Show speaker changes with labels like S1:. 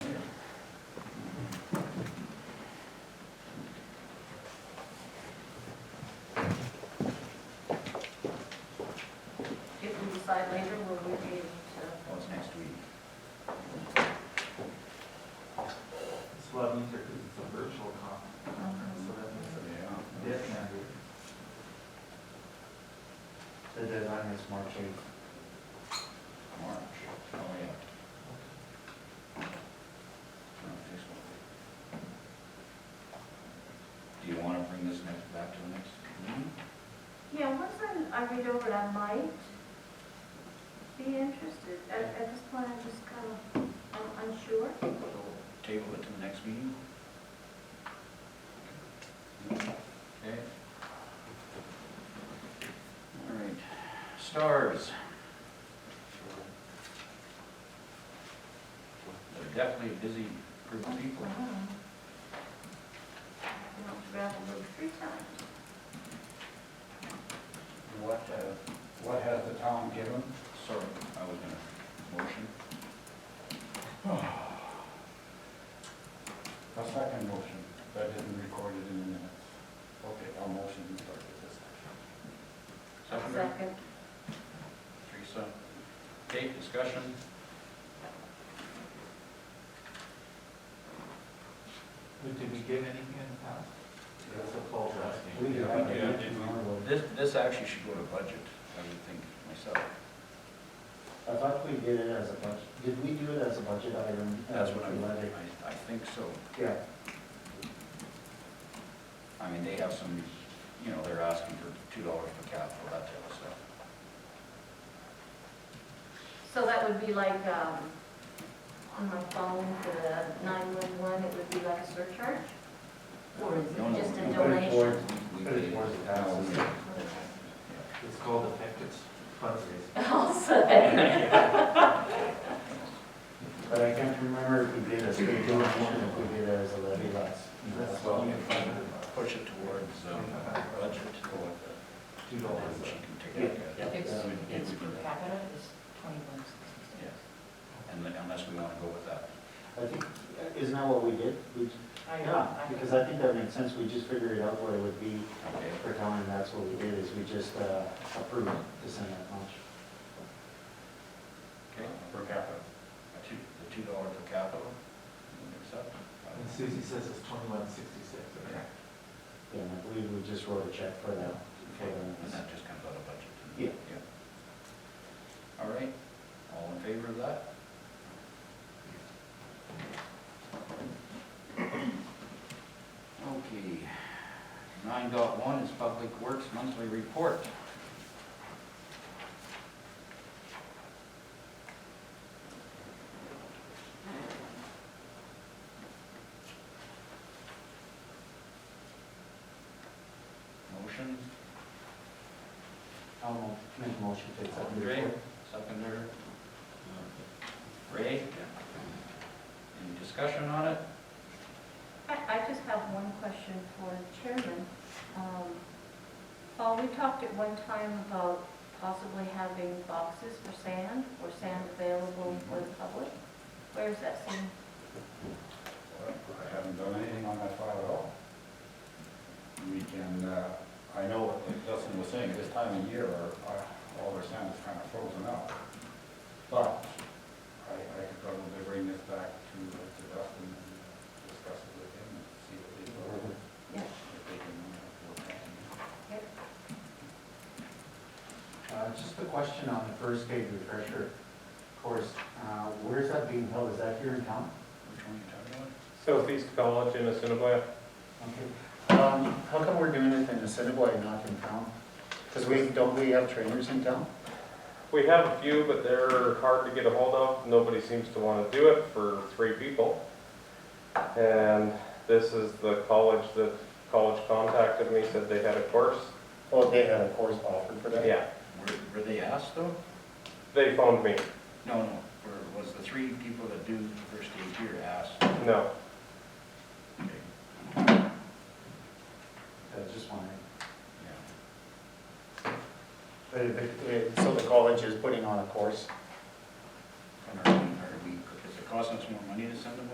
S1: well, these are, it's a virtual conference, so that makes it different.
S2: The deadline is March eighth.
S3: March, oh, yeah. No, this one. Do you want to bring this next, back to the next meeting?
S4: Yeah, once I, I read over it, I might be interested. At, at this point, I'm just kind of, I'm unsure.
S3: Table it to the next meeting? Okay. All right, stars. They're Definitely a busy group of people.
S4: You know, travel over three times.
S3: What, uh,
S2: What has the town given?
S3: sorry, I was gonna motion.
S2: A second motion, that isn't recorded in the minutes. Okay, I'll motion to start with this.
S3: Seconder?
S4: Second.
S3: Teresa. Kate, discussion?
S1: But did we give anything in the past? That's a poll asking.
S2: We have
S3: we
S2: a
S3: do.
S2: did.
S3: This, this actually should go to budget, I would think myself.
S5: I thought we did it as a budget, did we do it as a budget item?
S3: That's what I'm,
S5: Uh,
S3: I, I think so.
S5: Yeah,
S3: I mean, they have some, you know, they're asking for two dollars per capita, that type of stuff.
S4: So that would be like, um, on my phone for the nine-one-one, it would be like a surcharge? Or is
S3: No, no,
S4: it just a
S3: no,
S2: but it's
S4: donation?
S3: We
S5: But it's
S3: pay-
S5: worth it.
S3: No, we- yeah.
S1: It's called effective fundraising.
S4: I'll say.
S5: but I can't remember if we did as a donation, if we did it as a levy last.
S1: That's what we funded,
S3: Push it towards, um, budget, go with the,
S1: two dollars.
S3: and she can take a look at it.
S6: It's,
S5: Um,
S6: it's
S3: we
S6: per
S3: can-
S6: capita is twenty-one sixty-six.
S3: And then- unless we wanna go with that.
S5: I think, uh, isn't that what we did? We-
S6: I-
S5: Yeah,
S6: I-
S5: because I think that makes sense, we just figured it out what it would be
S3: Okay.
S5: for town, and that's what we did, is we just uh, approved to send that much.
S3: Okay. Per capita. Two, the two dollar per capita, accept?
S1: And Susie says it's twenty-one sixty-six, okay?
S5: Yeah, and I believe we just wrote a check for that. for
S3: Okay,
S5: that.
S3: and that just comes out of budget?
S5: Yeah.
S3: All right, all in favor of that? Okay, nine dot one is Public Works Monthly Report. Motion,
S5: I'll mo- make a motion to accept the
S3: Great.
S5: report.
S3: seconder. Ray? Any discussion on it?
S4: I, I just have one question for the chairman. Um, Paul, we talked at one time about possibly having boxes for sand, or sand available for the public. Where's that sand?
S2: I haven't done anything on that file at all. We can, uh, I know what Dustin was saying, this time of year, our, our- all our sand is kind of frozen up. But I, I could probably bring this back to, uh, to Dustin and discuss it with him and see what they,
S4: Yeah.
S2: if they can uh, work on it.
S5: Uh, Just a question on the first aid refresher course. Uh, Where is that being held? Is that here in town?
S3: Which one are you talking about?
S7: Southeast College in Assiniboia.
S5: Okay. Um, How come we're doing it in Assiniboia, not in town? Because we, don't we have trainers in town?
S7: We have a few, but they're hard to get a hold of. Nobody seems to want to do it for three people. And this is the college that, college contacted me, said they had a course.
S5: Oh, they had a course offered for that?
S7: Yeah,
S3: Were, were they asked though?
S7: they phoned me.
S3: No, no, or was the three people that do the first aid here asked?
S7: No,
S3: Okay,
S5: I was just wondering.
S3: yeah.
S5: But it- but- So the college is putting on a course?
S3: And are we, are we, is it costing us more money to send them